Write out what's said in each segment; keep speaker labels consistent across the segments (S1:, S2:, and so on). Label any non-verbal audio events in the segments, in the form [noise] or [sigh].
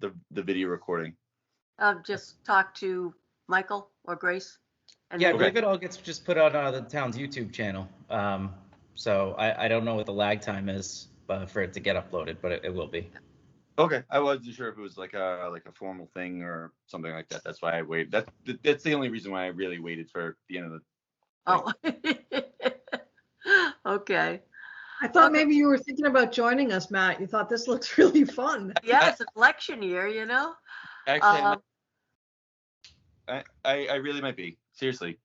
S1: the video recording?
S2: Um, just talk to Michael or Grace. and
S3: Yeah, I
S2: then-
S3: believe it all gets just put out on the town's YouTube channel. Um, so I, I don't know what the lag time is uh, for it to get uploaded, but it, it will be.
S1: Okay, I wasn't sure if it was like a like a formal thing or something like that. That's why I waited. That's that's the only reason why I really waited for the end of the.
S2: Oh. [laughs] Okay.
S4: I thought
S2: Okay.
S4: maybe you were thinking about joining us, Matt. You thought this looks [laughs] really fun.
S2: Yeah, it's election year, you know?
S1: Actually,
S2: Um,
S1: I, I I really might be seriously.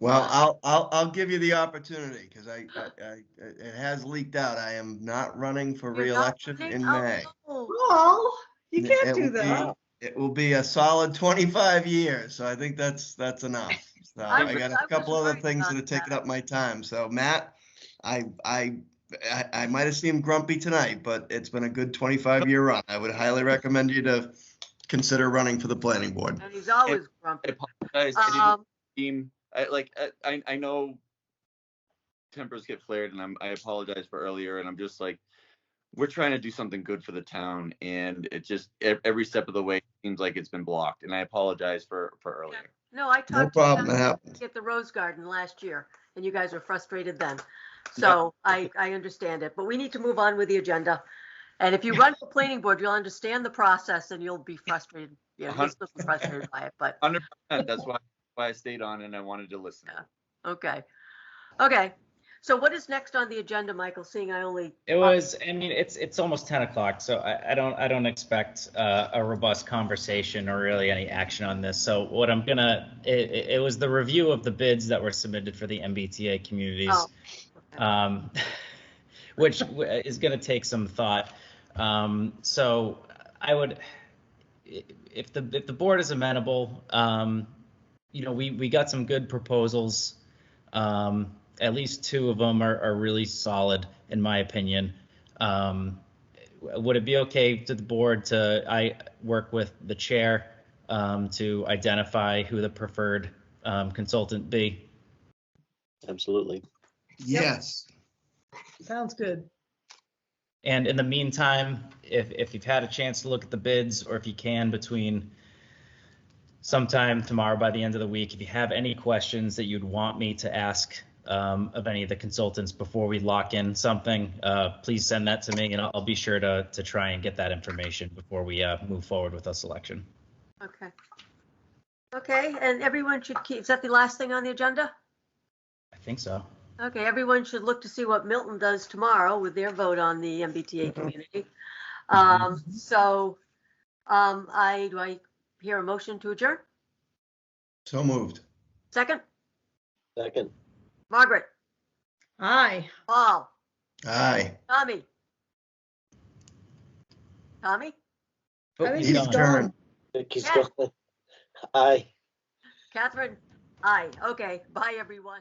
S5: Well, I'll, I'll, I'll give you the opportunity because I, I, I, it has leaked out. I am not running for
S2: you're not
S5: reelection
S2: running?
S5: in
S2: Oh,
S5: May.
S2: no.
S4: Oh, you
S5: It
S4: can't do
S5: will be-
S4: that.
S5: It will be a solid 25 years, so I think that's, that's enough.
S2: [laughs]
S5: So
S2: I
S5: I
S2: was-
S5: got
S2: I
S5: a
S2: was
S5: couple other
S2: worried
S5: things
S2: about
S5: that have taken
S2: that.
S5: up my time. So Matt, I, I, I, I might have seemed grumpy tonight, but it's been a good 25-year run. I would highly recommend you to consider running for the planning board.
S2: And he's always
S1: I
S2: grumpy.
S1: apologize. I didn't
S2: Um,
S1: seem I, like I- I I know tempers get flared, and I'm I apologize for earlier, and I'm just like we're trying to do something good for the town, and it just e- every step of the way seems like it's been blocked, and I apologize for for earlier.
S2: No, I
S5: No
S2: talked to
S5: problem,
S2: him
S5: it happens.
S2: at the Rose Garden last year, and you guys were frustrated then. So I, I understand it, but we need to move on with the agenda. And if you run for planning board, you'll understand the process and you'll be frustrated. Yeah, you'll still be frustrated by it, but,
S1: Hundred percent. [laughs] That's why why I stayed on, and I wanted to listen.
S2: okay. Okay, so what is next on the agenda, Michael, seeing I only,
S3: It was, I mean, it's, it's almost 10 o'clock, so I, I don't, I don't expect uh, a robust conversation or really any action on this. So what I'm gonna, it, it it was the review of the bids that were submitted for the MBTA communities.
S2: oh,
S3: um, [laughs] which w- is going to take some thought. Um, so I would, i- if the if the board is amenable, um, you know, we we got some good proposals. Um, at least two of them are, are really solid, in my opinion. Um, w- would it be okay to the board to I work with the chair um, to identify who the preferred um, consultant be?
S6: Absolutely.
S5: Yes.
S4: Sounds good.
S3: And in the meantime, if, if you've had a chance to look at the bids, or if you can between sometime tomorrow by the end of the week, if you have any questions that you'd want me to ask um, of any of the consultants before we lock in something, uh, please send that to me and I'll, I'll be sure to, to try and get that information before we uh, move forward with a selection.
S2: okay. Okay, and everyone should keep, is that the last thing on the agenda?
S3: I think so.
S2: Okay, everyone should look to see what Milton does tomorrow with their vote on the MBTA community. Um, so, um, I, do I hear a motion to adjourn?
S5: So moved.
S2: Second,
S6: Second.
S2: Margaret,
S4: Aye.
S2: Paul,
S5: Aye.
S2: Tommy. Tommy,
S4: I think
S3: He's
S5: he's
S3: gone.
S5: done.
S4: gone.
S6: Thank you,
S2: Yeah.
S6: Scott. [laughs] Aye.
S2: Catherine, aye, okay, bye, everyone.